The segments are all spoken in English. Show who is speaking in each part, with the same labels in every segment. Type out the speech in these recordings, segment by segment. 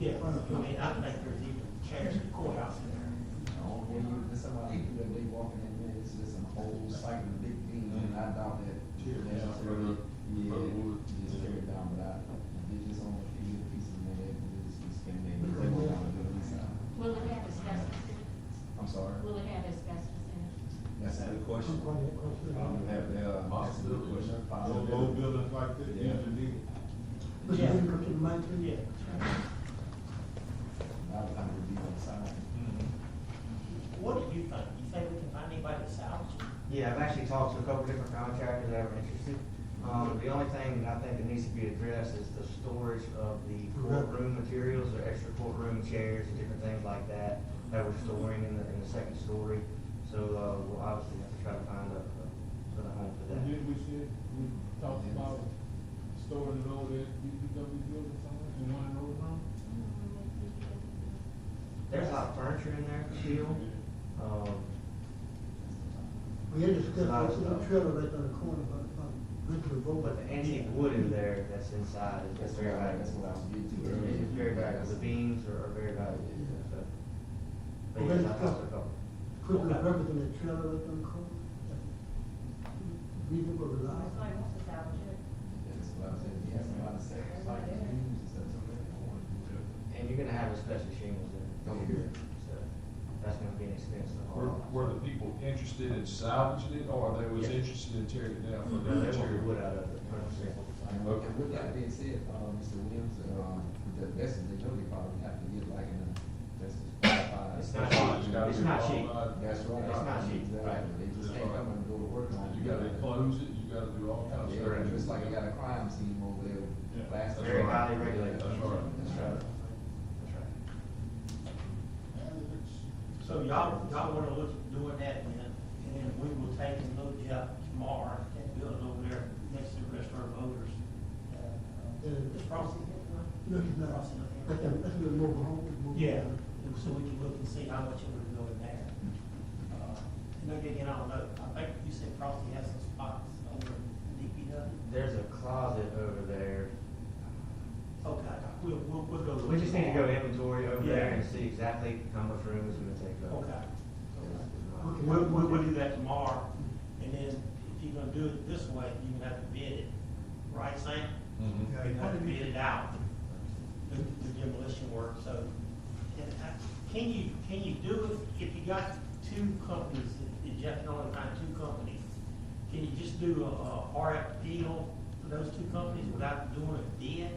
Speaker 1: Yeah, I mean, I think there's even chairs in the courthouse in there.
Speaker 2: Oh, well, you, that's somebody, people that they walking in, man, it's just a whole cycle, big thing, and I doubt that.
Speaker 3: Tear down,
Speaker 2: necessarily-
Speaker 3: right?
Speaker 2: Yeah,
Speaker 3: Right, wood.
Speaker 2: just tear it down, but I, it's just on a few little pieces, man, that we just spend maybe
Speaker 3: Right.
Speaker 2: a little on the building side.
Speaker 4: Will it have asbestos in
Speaker 2: I'm sorry,
Speaker 4: it? Will it have asbestos in it?
Speaker 2: that's a good question. I would have, uh, that's a good
Speaker 3: Possibility.
Speaker 2: question.
Speaker 3: Low, low buildings like that,
Speaker 2: Yeah.
Speaker 3: usually need it.
Speaker 1: Yeah.
Speaker 5: Yeah.
Speaker 1: Yeah.
Speaker 2: I would have to be on the side.
Speaker 1: What do you think? You think we can find anybody to salvage it?
Speaker 6: Yeah, I've actually talked to a couple different contractors that are interested. Um, the only thing that I think that needs to be addressed is the storage of the courtroom materials, or extra courtroom chairs and different things like that that we're storing in the, in the second story. So, uh, we'll obviously have to try to find a, a, a home for that.
Speaker 7: Mm-hmm.
Speaker 3: And then we said, we talked about storing it over at DPW building somewhere, in one of those rooms.
Speaker 6: There's a lot of furniture in there still. Um,
Speaker 5: We had discussed, that's a little trailer right on the corner, but, but, went to the vote.
Speaker 6: but the antique wood in there that's inside is
Speaker 2: That's
Speaker 6: that's
Speaker 2: where
Speaker 6: very
Speaker 2: I, that's
Speaker 6: valuable.
Speaker 2: what I was getting to earlier.
Speaker 6: It's very valuable. The beams are, are very valuable, so.
Speaker 5: Well,
Speaker 6: But yes,
Speaker 5: that's
Speaker 6: I talked to a
Speaker 5: good.
Speaker 6: couple.
Speaker 5: Put the records in the trailer right on the corner. Reasonable, reliable.
Speaker 4: Somebody wants to salvage it.
Speaker 2: That's what I was saying, he has a lot of stuff, like, rooms and stuff, so they don't want to do it.
Speaker 6: And you're gonna have asbestos shingles in
Speaker 2: Oh,
Speaker 6: it,
Speaker 2: yeah.
Speaker 6: so that's gonna be an expense to
Speaker 7: Were,
Speaker 6: haul.
Speaker 7: were the people interested in salvaging it, or they was
Speaker 6: Yes.
Speaker 7: interested in tearing it down for that
Speaker 6: They want the
Speaker 7: material?
Speaker 6: wood out of it, hundred percent.
Speaker 2: And with- and with that being said, uh, Mr. Williams, um, the best they know, they probably have to get like an, that's qualified.
Speaker 6: It's
Speaker 7: It's
Speaker 6: not cheap,
Speaker 7: gotta
Speaker 6: it's
Speaker 7: be
Speaker 6: not
Speaker 7: all
Speaker 6: cheap.
Speaker 7: about-
Speaker 2: That's right.
Speaker 6: It's not cheap.
Speaker 2: Exactly, they just can't come and go to work on it.
Speaker 7: You gotta enclose it, you gotta do all kinds of
Speaker 2: Yeah,
Speaker 7: stuff.
Speaker 2: just like you got a crime scene over there,
Speaker 3: Yeah.
Speaker 2: last.
Speaker 6: Very
Speaker 2: night.
Speaker 6: highly regulated.
Speaker 7: That's right.
Speaker 2: That's right.
Speaker 6: That's right.
Speaker 1: So y'all, y'all wanna look at doing that then, and then we will take and look it up tomorrow, that building over there next to the restaurant voters. It's Frosty.
Speaker 5: No, it's not.
Speaker 1: Frosty.
Speaker 5: Let them, let them move home. move
Speaker 1: Yeah,
Speaker 5: on.
Speaker 1: and so we can look and see how much it would go in there. Uh, And again, I don't know, I think you said Frosty has some spots over in DPW.
Speaker 6: There's a closet over there.
Speaker 1: Okay, we'll, we'll, we'll go.
Speaker 6: We just need to go inventory over there
Speaker 1: Yeah.
Speaker 6: and see exactly how much room is gonna take up.
Speaker 1: Okay.
Speaker 5: Okay.
Speaker 1: We'll, we'll, we'll do that tomorrow, and then if you're gonna do it this way, you're gonna have to bid it, right, Sam?
Speaker 7: Mhm.
Speaker 1: You have to bid it out, the the demolition work, so, and I, can you, can you do it, if you got two companies, if Jeff can only find two companies, can you just do a, a RF deal for those two companies without doing a bid?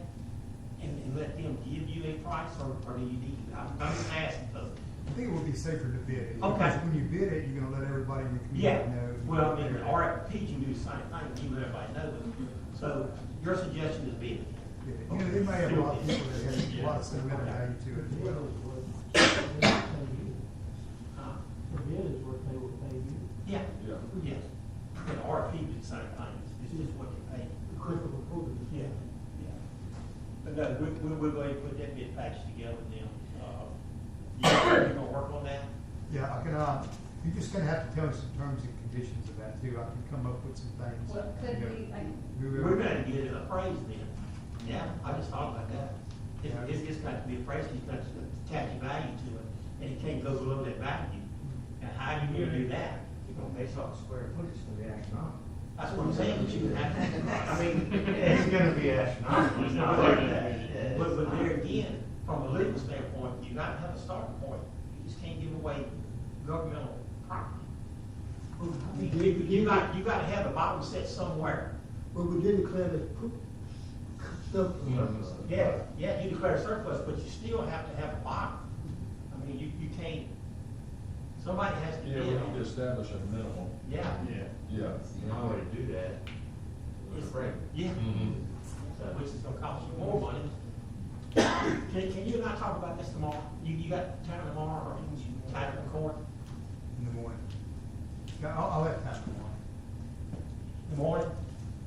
Speaker 1: And, and let them give you a price, or, or do you need, I'm, I'm just asking, because
Speaker 8: I think it would be safer to bid it.
Speaker 1: Okay.
Speaker 8: Because When you bid it, you're gonna let everybody in the
Speaker 1: Yeah,
Speaker 8: community know.
Speaker 1: well, I mean, the RFP can do the same thing, you let everybody know it. So your suggestion is bid.
Speaker 8: Yeah. You know, there may have a lot of people that have a lot of sentimental value to it as
Speaker 5: The other
Speaker 8: well.
Speaker 5: was, they would pay you.
Speaker 1: Huh?
Speaker 5: The bid is what they would pay you.
Speaker 1: Uh-huh. Yeah,
Speaker 7: Yeah.
Speaker 1: yes. And RFP do the same thing, it's just what you pay.
Speaker 5: The quicker the quicker.
Speaker 1: Yeah, yeah. But no, we, we, we're going to put that bid package together with them. Uh, You you gonna work on that?
Speaker 8: Yeah, I can, uh, you're just gonna have to tell us the terms and conditions of that too. I can come up with some things.
Speaker 4: Well, could
Speaker 8: you know.
Speaker 4: we, like,
Speaker 8: We will-
Speaker 1: We're gonna get it appraised then. Yeah, I just thought about that. It's,
Speaker 8: Yeah.
Speaker 1: it's, it's got to be appraised, it's got to attach value to it, and it can't go below that value. And how do you do that?
Speaker 6: You're gonna base off the square footage, it's gonna be astronomical.
Speaker 1: That's what I'm saying, that you would have to.
Speaker 6: I mean, it's gonna be astronomical. It's not like that.
Speaker 1: But, but there again, from a legal standpoint, you gotta have a starting point. You just can't give away governmental property.
Speaker 5: Well,
Speaker 1: I
Speaker 5: we
Speaker 1: mean, you,
Speaker 5: did- we
Speaker 1: you
Speaker 5: did-
Speaker 1: got, you gotta have a bottom set somewhere.
Speaker 5: Well, we did declare that poop stuff.
Speaker 1: Yeah, yeah, you declare surplus, but you still have to have a bottom. I mean, you, you can't, somebody has to
Speaker 7: Yeah,
Speaker 1: bid
Speaker 7: we need to
Speaker 1: on it.
Speaker 7: establish a minimum,
Speaker 1: Yeah.
Speaker 6: Yeah.
Speaker 7: yeah.
Speaker 6: The only way to do that is
Speaker 1: It's-
Speaker 6: break.
Speaker 1: Yeah,
Speaker 7: Mhm.
Speaker 6: So-
Speaker 1: which is gonna cost you more money. Can, can you and I talk about this tomorrow? You, you got time tomorrow, or you can time in court
Speaker 8: In the morning. Yeah, I'll, I'll have time in the morning.
Speaker 1: in the morning?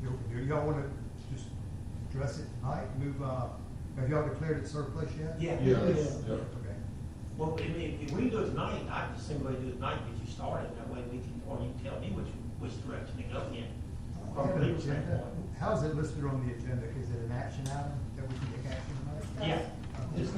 Speaker 8: You- you- Y'all wanna just address it tonight? Move, uh, have y'all declared it surplus yet?
Speaker 1: Yeah.
Speaker 7: Yeah,
Speaker 5: Yeah.
Speaker 7: yeah.
Speaker 8: Okay.
Speaker 1: Well, I mean, if we do it tonight, I just simply do it tonight, because you started, that way we can, or you can tell me which, which direction to go in. From a legal standpoint.
Speaker 8: How is it listed on the agenda? Is it an action item that we can take action on?
Speaker 1: Yeah,